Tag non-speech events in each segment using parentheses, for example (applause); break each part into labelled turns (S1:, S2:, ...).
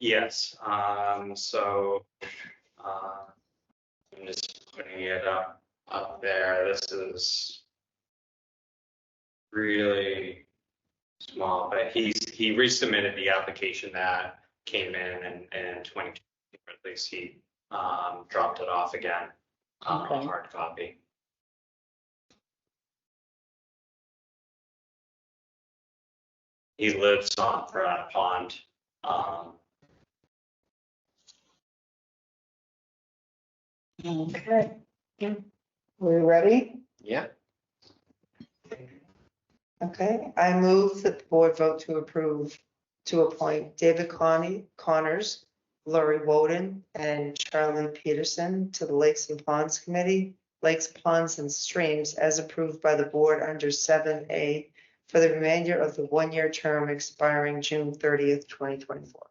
S1: Yes, um, so, uh, I'm just putting it up, up there. This is really small, but he's, he resubmitted the application that came in and, and twenty, at least he, um, dropped it off again. Um,
S2: Okay.
S1: hard copy. He lives on Piranha Pond, um,
S2: Okay. We ready?
S1: yeah,
S2: Okay, I move that the board vote to approve to appoint David Connie Connors, Lori Woden, and Charlene Peterson to the Lakes and Ponds Committee, Lakes, Ponds, and Streams as approved by the board under seven A for the remainder of the one-year term expiring June thirtieth, twenty twenty-four.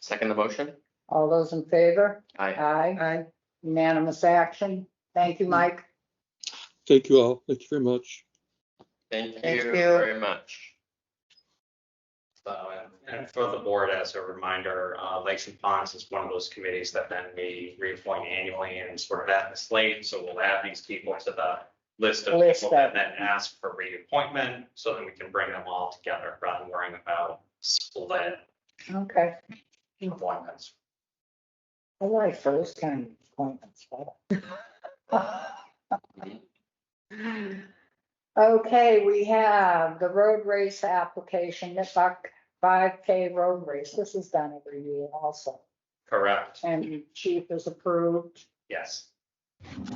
S3: Second the motion?
S4: All those in favor?
S3: Aye.
S4: Aye.
S2: Aye.
S4: Unanimous action. Thank you, Mike.
S5: Thank you all. Thank you very much.
S3: Thank you
S2: Thank you.
S3: very much.
S1: So, and- and for the board, as a reminder, uh, Lakes and Ponds is one of those committees that then we reappoint annually and sort of at the slate. So we'll add these people to the list of
S4: List
S1: people and
S4: of-
S1: then ask for reappointment so that we can bring them all together rather than worrying about split
S4: Okay.
S1: appointments.
S4: I like those kind of appointments. better. Okay, we have the road race application, the buck five K road race. This is done every year also.
S1: Correct,
S4: And chief is approved.
S1: yes.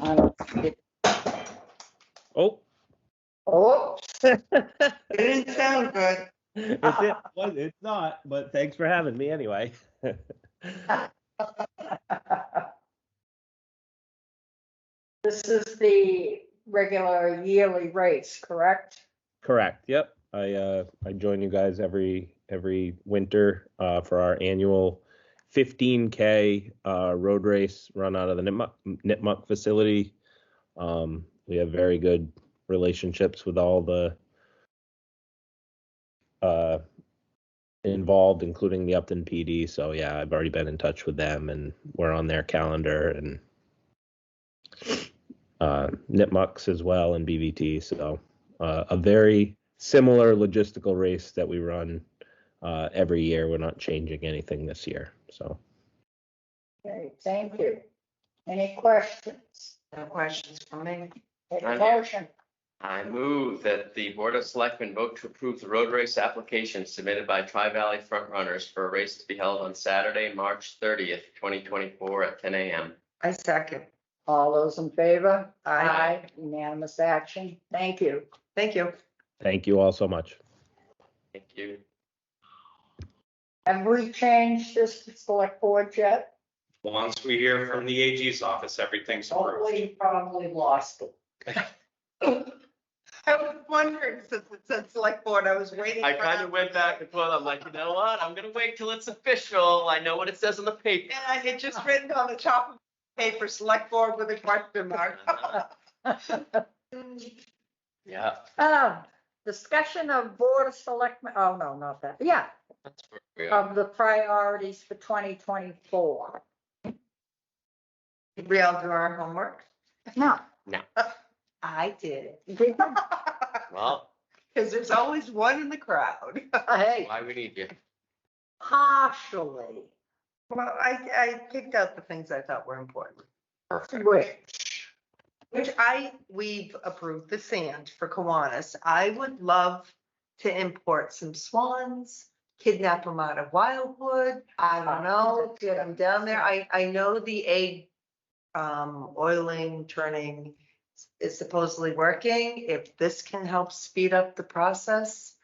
S4: I don't-
S6: Oh,
S4: Oh,
S2: It didn't sound good.
S6: it's it. Well, It's not, but thanks for having me anyway.
S4: (laughs) This is the regular yearly race, correct?
S6: Correct. Yep. I uh I join you guys every every winter uh for our annual 15k uh road race run out of the Nipmuc, Nipmuc facility. Um we have very good relationships with all the uh involved including the Upton PD. So yeah, I've already been in touch with them and we're on their calendar and uh Nipmuc's as well and BVT so uh, a very similar logistical race that we run uh, every year. We're not changing anything this year. So
S4: Okay, thank you. Any questions?
S2: No questions from me.
S4: Take a
S3: None.
S4: motion.
S3: I move that the Board of Selectmen vote to approve the road race application submitted by Tri-Valley Front Runners for a race to be held on Saturday, March thirtieth, twenty twenty-four at ten AM.
S2: I second.
S4: All those in favor?
S2: Aye.
S4: Unanimous action. Thank you.
S2: Thank you.
S6: thank you all so much.
S3: Thank you.
S4: Have we changed this to select board yet?
S1: Once we hear from the AG's office, everything's approved.
S4: Probably, probably lost it.
S2: I was wondering since it said select board, I was waiting.
S3: I
S2: for
S3: kind of
S2: that.
S3: went back and forth. I'm like, you know what? I'm gonna wait till it's official. I know what it says on the paper. (laughs)
S2: And I had just written on the top of paper, select board with a question mark.
S3: Yeah.
S4: Um, discussion of board of selectmen, oh, no, not that. Yeah,
S3: that's where we are.
S4: of the priorities for twenty twenty-four.
S2: Did we all do our homework?
S4: No,
S2: I did.
S4: we don't.
S3: Well,
S2: Because there's always one in the crowd.
S4: (laughs) hey,
S3: why we need you.
S4: partially,
S2: Well, I, I picked out the things I thought were important,
S4: which,
S2: which I, we've approved the sand for Kiwanis. I would love to import some swans, kidnap them out of Wildwood. I don't know, get them down there. I, I know the egg um, oiling, turning is supposedly working. If this can help speed up the process,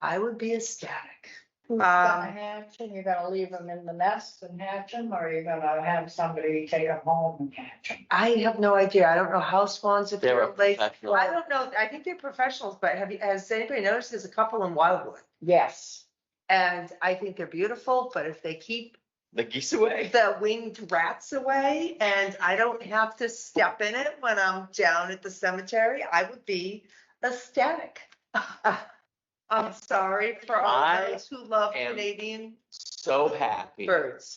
S2: I would be ecstatic.
S4: who's gonna
S2: Um,
S4: hatch and you're gonna leave them in the nest and hatch them, or you're gonna have somebody take them home and hatch them?
S2: I have no idea. I don't know how swans if
S3: They're
S2: they're
S3: a
S2: late.
S3: professional.
S2: I don't know. I think they're professionals, but have you, has anybody noticed there's a couple in Wildwood?
S4: Yes,
S2: And I think they're beautiful, but if they keep
S3: The geese away.
S2: the winged rats away and I don't have to step in it when I'm down at the cemetery, I would be ecstatic. (laughs) I'm sorry for all
S3: I
S2: those who love
S3: am
S2: Canadian
S3: So happy.
S2: birds.